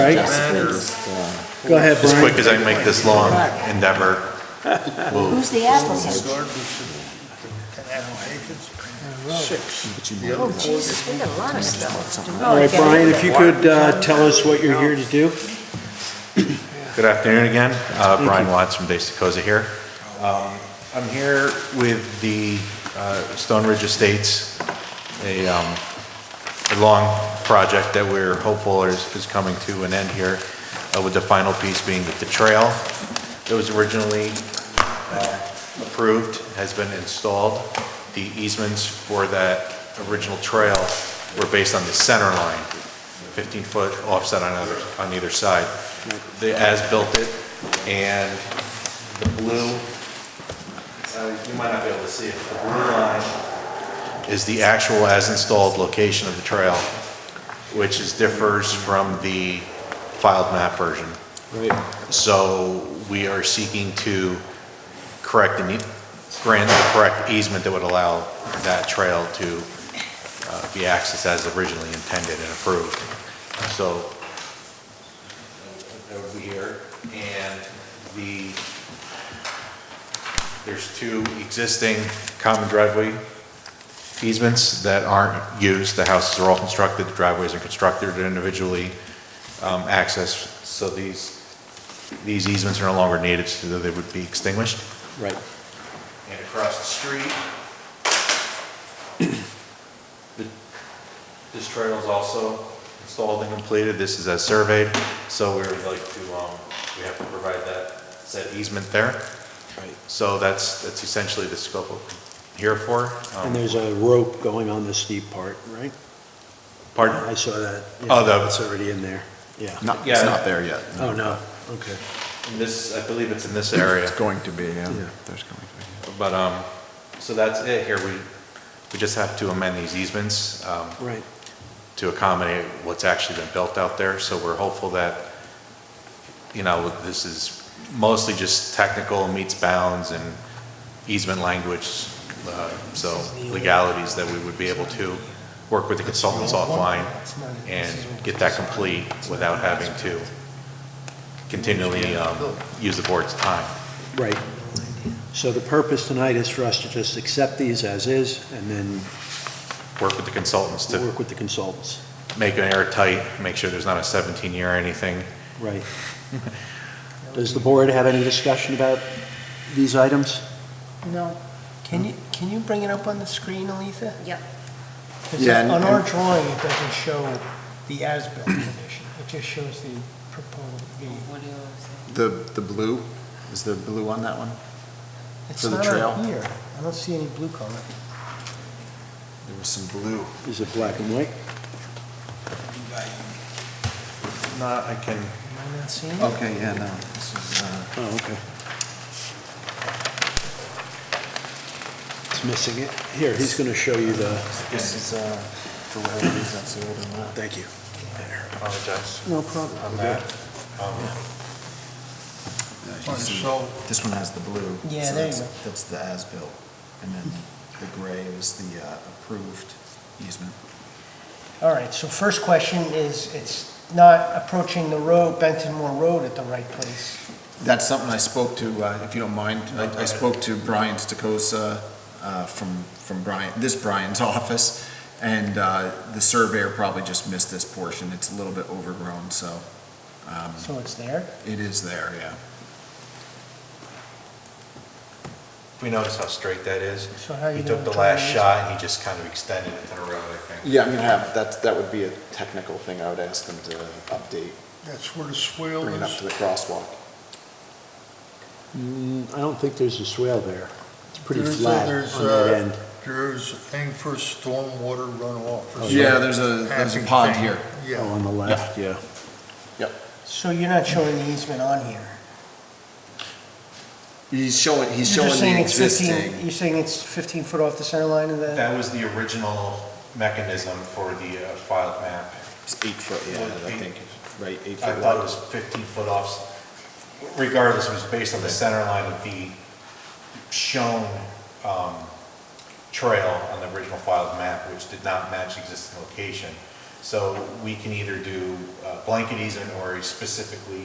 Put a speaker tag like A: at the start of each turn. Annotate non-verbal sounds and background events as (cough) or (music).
A: Right, go ahead,
B: As
A: Brian.
B: quick as I can make this long endeavor.
C: Who's the applicant? Jesus, we got a lot of stuff. to do.
A: All right, Brian, if you could uh, tell us what you're here to do.
B: Good afternoon again. Uh, Brian Watts from Base Decosa here. Um, I'm here with the uh, Stone Ridge Estates, a um, a long project that we're hopeful is is coming to an end here, uh, with the final piece being the trail that was originally uh, approved, has been installed. The easements for that original trail were based on the center line, 15-foot offset on either, on either side. The as-built it, and the blue, uh, you might not be able to see it, the blue line is the actual as-installed location of the trail, which is, differs from the filed map version. So we are seeking to correct the, need- grant the correct easement that would allow that trail to uh, be accessed as originally intended and approved. So that would be here, and the, there's two existing common driveway easements that aren't used. The houses are all constructed, the driveways are constructed they're individually um, accessed, so these, these easements are no longer needed, so they would be extinguished.
A: Right.
B: And across the street, the- this trail is also installed and completed, this is as surveyed, so we would like to, um, we have to provide that said easement there. So that's, that's essentially the scope of here for. um,
A: And there's a rope going on the steep part, right?
B: Pardon?
A: I saw that. Yeah,
B: Oh, the-
A: It's already in there, yeah.
D: Not,
B: Yeah.
D: it's not there yet. no.
A: Oh, no, okay.
B: In This, I believe it's in this area.
D: It's going to be, yeah.
A: Yeah.
D: There's going to
B: But, um, so that's it here, we, we just have to amend these easements. um,
A: Right,
B: to accommodate what's actually been built out there, so we're hopeful that, you know, this is mostly just technical meets bounds and easement language, uh, so legalities that we would be able to work with the consultants offline and get that complete without having to continually um, use the board's time.
A: right. So the purpose tonight is for us to just accept these as is and then
B: Work with the consultants to
A: work with the consultants.
B: make it airtight, make sure there's not a 17-year or anything.
A: Right. Does the board have any discussion about these items?
E: No. Can you, can you bring it up on the screen, Aletha?
C: Yep.
E: 'Cause
D: Yeah, and-
E: On our
D: and-
E: drawing, it doesn't show the as-built condition. It just shows the proposed, the,
D: be. The, the blue, is the blue on that one?
E: it's
D: For the
E: not
D: trail?
E: on here. I don't see any blue color.
D: There was some blue.
A: Is it black and white?
B: Not, I can,
E: Am I not seeing it?
D: Okay, yeah, no. this is, uh,
A: Oh, okay. It's missing it. Here, he's going to show you the,
D: This is, uh, for whatever reason, that's the older one.
A: thank you. There.
B: apologize
E: No problem.
B: on that.
D: As you see, This one has the blue.
E: Yeah,
D: so
E: there you
D: that's-
E: go.
D: That's the as-built. And then the gray is the uh, approved easement. Oh.
E: All right, so first question is, it's not approaching the road, Benton Moore Road at the right place.
D: That's something I spoke to, uh, if you don't mind, I I spoke to Brian Stokosa uh, from, from Brian, this Brian's (laughs) office, and uh, the surveyor probably just missed this portion. It's a little bit overgrown, so um,
E: So it's there?
D: it is there, yeah.
B: We notice how straight that is.
E: So how you
B: He took
E: gonna
B: the
E: try
B: last
E: and-
B: shot and he just kind of extended it to the road, I think.
D: Yeah, I'm gonna have, that's, that would be a technical thing I would ask them to update,
F: That's where the swale
D: bring it up
F: is.
D: to the crosswalk.
A: Mm, I don't think there's a swale there. It's pretty
F: There's a-
A: flat
F: there's uh,
A: on that
F: a-
A: end.
F: There's a thing for stormwater runoff. or
D: Yeah,
F: some
D: there's a, there's a
F: passing
D: pond
F: thing.
D: here.
A: Oh,
F: Yeah,
A: on the left, yeah.
E: So you're not showing the easement on here?
D: He's showing, he's
E: You're
D: showing
E: just saying
D: the
E: it's 15
D: existing.
E: You're saying it's 15 foot off the center line of the?
B: That was the original mechanism for the uh, filed map.
D: It's eight foot, yeah, I think, right, eight
B: I
D: foot
B: thought it was
D: wide.
B: 15 foot off. Regardless, it was based on the center line of the shown um, trail on the original filed map, which did not match the existing location. So we can either do uh, blanket easement or a specifically